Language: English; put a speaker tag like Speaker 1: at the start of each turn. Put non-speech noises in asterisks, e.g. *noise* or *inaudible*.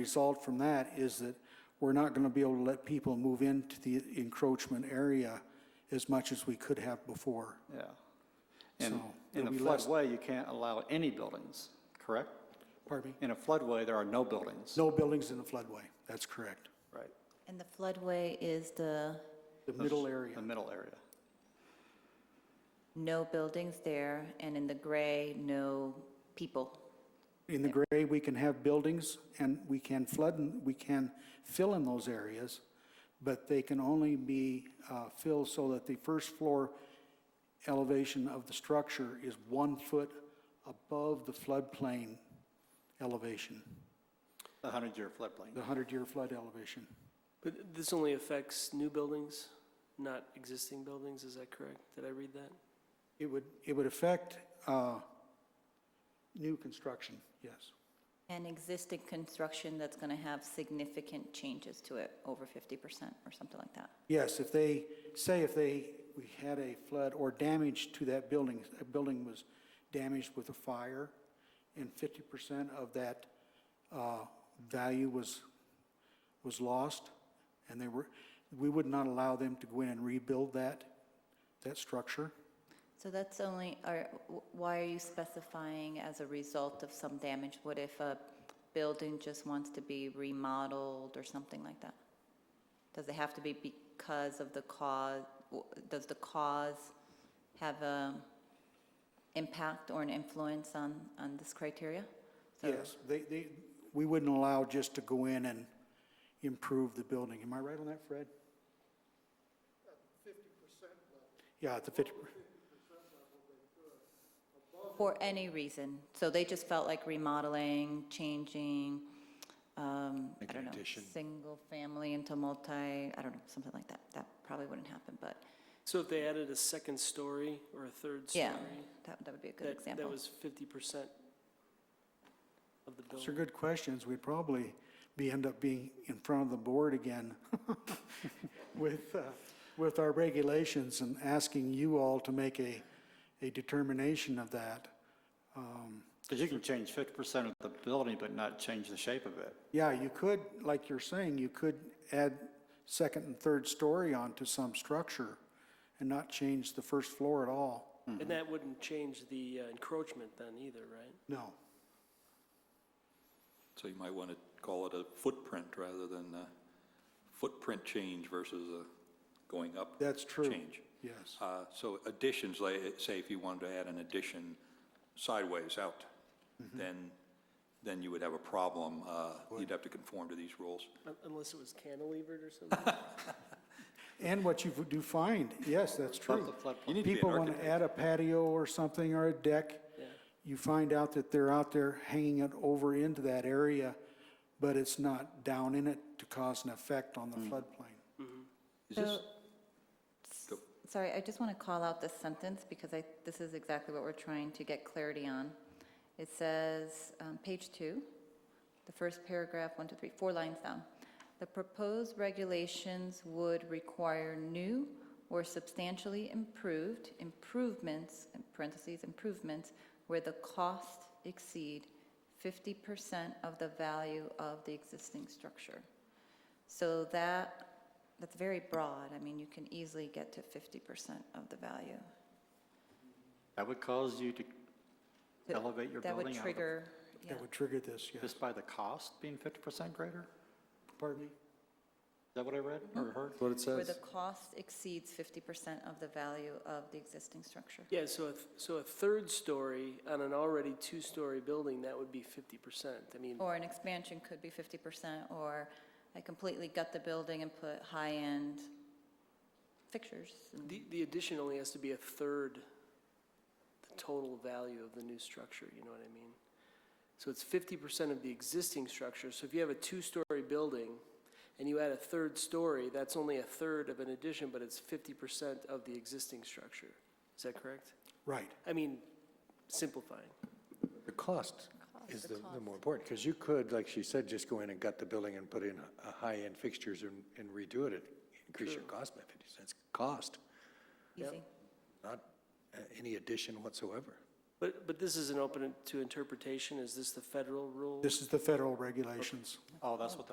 Speaker 1: result from that is that we're not going to be able to let people move into the encroachment area as much as we could have before.
Speaker 2: Yeah. And
Speaker 1: So,
Speaker 2: in a
Speaker 1: it'll be less-
Speaker 2: floodway, you can't allow any buildings, correct?
Speaker 1: Pardon me?
Speaker 2: In a floodway, there are no buildings.
Speaker 1: No buildings in the floodway, that's correct.
Speaker 2: Right.
Speaker 3: And the floodway is the
Speaker 1: The middle area,
Speaker 2: The middle area.
Speaker 3: no buildings there, and in the gray, no people.
Speaker 1: in the gray, we can have buildings and we can flood and we can fill in those areas, but they can only be uh, filled so that the first floor elevation of the structure is one foot above the floodplain elevation,
Speaker 2: The 100-year
Speaker 1: the
Speaker 2: floodplain.
Speaker 1: 100-year flood elevation.
Speaker 4: But this only affects new buildings, not existing buildings, is that correct? Did I read that?
Speaker 1: It would, it would affect uh, new construction, yes.
Speaker 3: And existing construction that's going to have significant changes to it, over 50% or something like that.
Speaker 1: Yes, if they, say if they, we had a flood or damage to that building, a building was damaged with a fire, and 50% of that uh, value was, was lost, and they were, we would not allow them to go in and rebuild that, that structure.
Speaker 3: So that's only, are- why are you specifying as a result of some damage? What if a building just wants to be remodeled or something like that? Does it have to be because of the cause, does the cause have a impact or an influence on, on this criteria? So-
Speaker 1: Yes, they, they, we wouldn't allow just to go in and improve the building. Am I right on that, Fred? At the fifty percent level.
Speaker 3: For any reason. So they just felt like remodeling, changing, um, I don't know, single family into multi, I don't know, something like that. That probably wouldn't happen, but
Speaker 4: So if they added a second story or a third story?
Speaker 3: yeah, that, that would be a good
Speaker 4: that- That
Speaker 3: example.
Speaker 4: was fifty percent of the
Speaker 1: Yeah, those are
Speaker 4: building.
Speaker 1: good questions. We'd probably be, end up being in front of the board again *laughs* with, uh, with our regulations and asking you all to make a, a determination of that.
Speaker 2: Because you can change 50% of the building, but not change the shape of it.
Speaker 1: Yeah, you could, like you're saying, you could add second and third story onto some structure and not change the first floor at all.
Speaker 4: And that wouldn't change the uh, encroachment then either, right?
Speaker 1: No.
Speaker 5: So you might want to call it a footprint rather than a footprint change versus a going up.
Speaker 1: That's true.
Speaker 5: Change.
Speaker 1: Yes.
Speaker 5: Uh, So additions, like, say if you wanted to add an addition sideways out,
Speaker 1: Mm-hmm.
Speaker 5: then, then you would have a problem. Uh, You'd have to conform to these rules.
Speaker 4: Un- Unless it was cantilevered or something?
Speaker 1: And what you do find, yes, that's
Speaker 2: Above
Speaker 1: true.
Speaker 2: the floodplain.
Speaker 5: You need to be an
Speaker 1: People want to
Speaker 5: architect.
Speaker 1: add a patio or something or a deck.
Speaker 4: Yeah.
Speaker 1: You find out that they're out there hanging it over into that area, but it's not down in it to cause an effect on the
Speaker 5: Hmm.
Speaker 1: floodplain.
Speaker 5: Is
Speaker 3: So,
Speaker 5: this, Go.
Speaker 3: sorry, I just want to call out this sentence because I, this is exactly what we're trying to get clarity on. It says, um, page two, the first paragraph, one, two, three, four lines down. The proposed regulations would require new or substantially improved improvements, in parentheses, improvements, where the cost exceed 50% of the value of the existing structure. So that, that's very broad. I mean, you can easily get to 50% of the value.
Speaker 2: That would cause you to elevate your
Speaker 3: That
Speaker 2: building
Speaker 3: would
Speaker 2: out of-
Speaker 3: trigger, yeah.
Speaker 1: That would trigger this, yes.
Speaker 2: just by the cost being 50% greater? Is
Speaker 1: Pardon me?
Speaker 2: that what I read or heard?
Speaker 6: That's what it
Speaker 3: Where the
Speaker 6: says.
Speaker 3: cost exceeds 50% of the value of the existing structure.
Speaker 4: Yeah, so a, th- so a third story on an already two-story building, that would be fifty percent. I mean,
Speaker 3: Or an expansion could be 50%, or I completely gut the building and put high-end fixtures. and-
Speaker 4: the, the addition only has to be a third the total value of the new structure, you know what I mean? So it's fifty percent of the existing structure. So if you have a two-story building and you add a third story, that's only a third of an addition, but it's fifty percent of the existing structure. Is that correct?
Speaker 1: Right.
Speaker 4: I mean, simplifying.
Speaker 6: The cost is the the more important, because you could, like she said, just go in and gut the building and put in a high-end fixtures and and redo it, and increase your cost by 50 cents. Cost,
Speaker 3: Easy.
Speaker 6: not uh, any addition whatsoever.
Speaker 4: But, but this isn't open to interpretation, is this the federal rule?
Speaker 1: This is the federal regulations.
Speaker 2: Oh, that's what the